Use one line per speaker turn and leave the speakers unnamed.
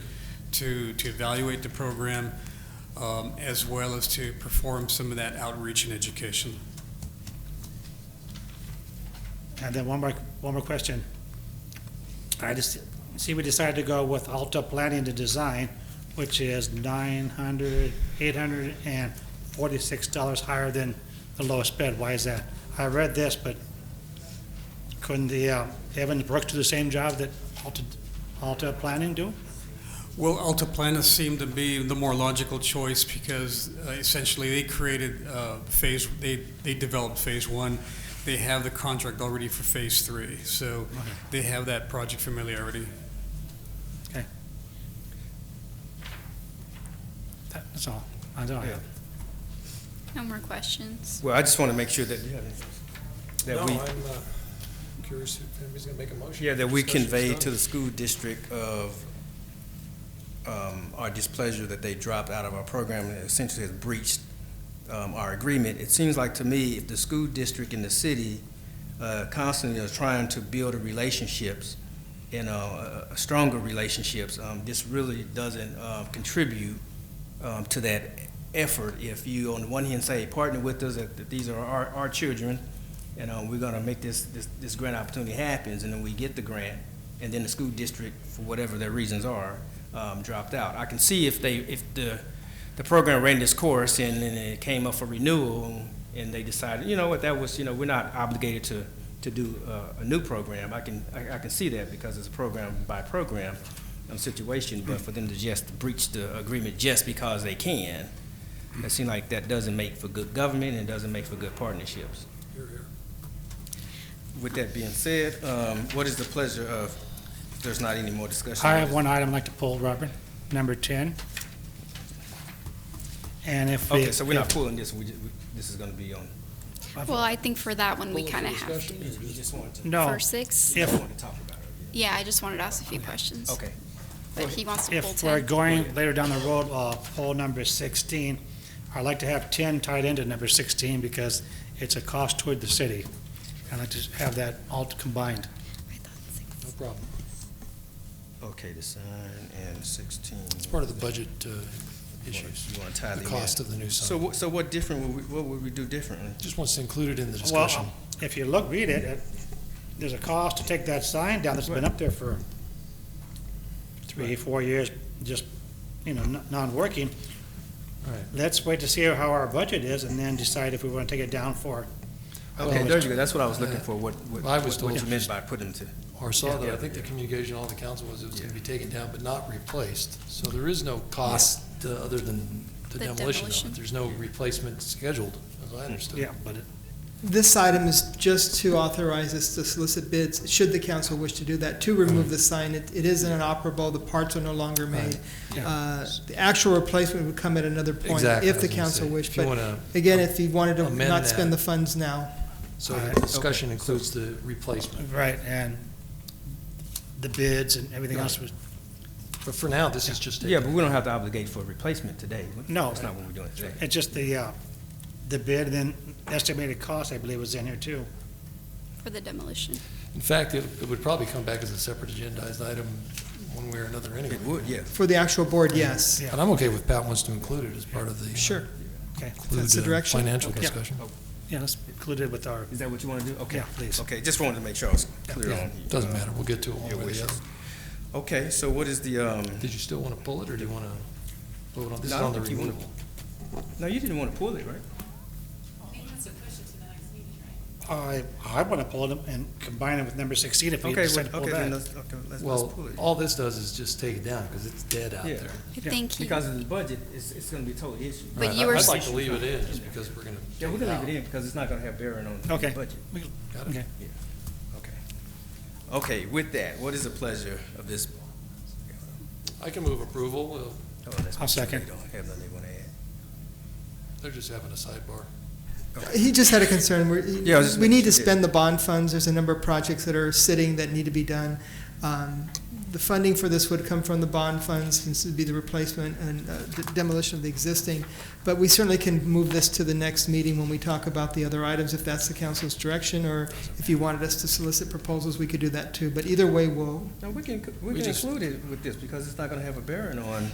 to, to evaluate the program, um, as well as to perform some of that outreach and education.
And then one more, one more question. I just, see, we decided to go with Alta Planning to Design, which is nine hundred, eight hundred and forty-six dollars higher than the lowest bid. Why is that? I read this, but couldn't the, uh, Evan Brooks do the same job that Alta, Alta Planning do?
Well, Altiplano seemed to be the more logical choice because uh, essentially they created uh, phase, they, they developed phase one. They have the contract already for phase three, so they have that project familiarity.
That's all. I don't have.
No more questions.
Well, I just want to make sure that, that we,
No, I'm uh, curious if anybody's going to make a motion.
yeah, that we
Discussion's
convey to
done.
the school district of um, our displeasure that they dropped out of our program and essentially has breached um, our agreement. It seems like to me, if the school district and the city uh, constantly are trying to build relationships and uh, uh, stronger relationships, um, this really doesn't uh, contribute um, to that effort. If you, on the one hand, say, partner with us, that that these are our, our children, and uh, we're gonna make this, this, this grant opportunity happens, and then we get the grant, and then the school district, for whatever their reasons are, um, dropped out. I can see if they, if the, the program ran this course and then it came up for renewal, and they decided, you know what, that was, you know, we're not obligated to, to do uh, a new program. I can, I, I can see that because it's a program by program um, situation, but for them to just breach the agreement just because they can, it seems like that doesn't make for good government and doesn't make for good partnerships.
Here, here.
With that being said, um, what is the pleasure of, if there's not any more discussion?
I have one item I'd like to pull, Robert, number ten. And if. we-
Okay, so we're not pulling this, we, ju- we- this is gonna be on.
Well, I think for that one, we
Close the
kind of have to.
discussion.
We just wanted to,
No,
For six?
if,
wanted to talk about it.
Yeah, I just wanted to ask a few questions.
Okay,
But he wants to pull
if we're
ten.
going later down the road, uh, poll number sixteen, I'd like to have ten tied into number sixteen because it's a cost toward the city. I'd like to have that all combined.
I thought six.
No problem.
okay, the sign and sixteen.
It's part of the budget uh, issues,
You wanna tie
the
them in?
cost of the new
So,
sign.
what- so what different, would we- what would we do differently?
Just wants to include it in the
Well,
discussion.
uh,
If you look, read it, it, there's a cost to take that sign down that's been up there for three, four years, just, you know, n- non-working.
Right.
Let's wait to see how our budget is and then decide if we want to take it down for,
Okay, there you go, that's what I was looking for, what, what,
I was
what what you
told-
meant by put them to.
Or saw
Yeah.
that, I think the communication, all the council was it was going to be taken down but not replaced. So there is no cost uh, other than the
The
demolition of
demolition.
it. There's no replacement scheduled, as I understood.
yeah, but it-
This item is just to authorize us to solicit bids, should the council wish to do that, to remove the sign. It it is inoperable, the parts are no longer made.
Yeah.
Uh, The actual replacement would come at another point,
Exactly, I
if
was
the
gonna
council
say,
wished.
If you
But
want to,
again, if you wanted to
amend
not
that.
spend the funds now,
so
All right,
the discussion includes the replacement.
right, and the bids and everything else was
But for now, this is just. a-
Yeah, but we don't have to obligate for a replacement today.
No.
That's not what we're doing today.
It's just the, uh, the bid, and then estimated cost, I believe, was in here too.
For the demolition.
In fact, it it would probably come back as a separate agendized item one way or another anyway.
It would, yeah.
for the actual board, yes.
Yeah.
And I'm okay with Pat wants to include it as part of the. uh,
Sure.
Okay,
include
That's the direction.
Financial
Okay.
discussion.
yeah, that's included with our,
Is that what you wanna do? Okay.
yeah, please.
Okay, just wanted to make sure I was clear
Yeah,
on.
Doesn't
uh,
matter, we'll get to it one
your
way or the
wishes.
other.
Okay, so what is the, um,
Did you still want to pull it, or do you want to vote on, this is
No, I
on the
think you wanna-
removal?
no, you didn't want to pull it, right?
I, I want to pull them and combine it with number sixteen if we
Okay,
decide to
well,
pull
okay, then
that.
let's, okay, let's, let's
Well,
pull it.
all this does is just take it down, because it's dead out
Yeah.
there.
I
Yeah,
think he,
Because of the budget, it's, it's gonna be a total issue.
But
Right,
you
I-
were-
I'd like to leave it in, just because we're going to.
Yeah, we're gonna leave it in because it's not gonna have bearing on the
Okay.
budget.
We can-
Got it.
Okay,
Okay. Okay, with that, what is the pleasure of this?
I can move approval, Well,
oh, that's-
I'll second.
They don't have nothing they wanna add.
they're just having a sidebar.
He just had a concern, we're,
Yeah, I was just
we need
making
to
sure.
spend the bond funds, there's a number of projects that are sitting that need to be done. Um, The funding for this would come from the bond funds, since it'd be the replacement and uh, d- demolition of the existing. But we certainly can move this to the next meeting when we talk about the other items, if that's the council's direction, or if you wanted us to solicit proposals, we could do that too, but either way, we'll,
No, we can, we
We
can
just-
include it with this because it's not gonna have a bearing on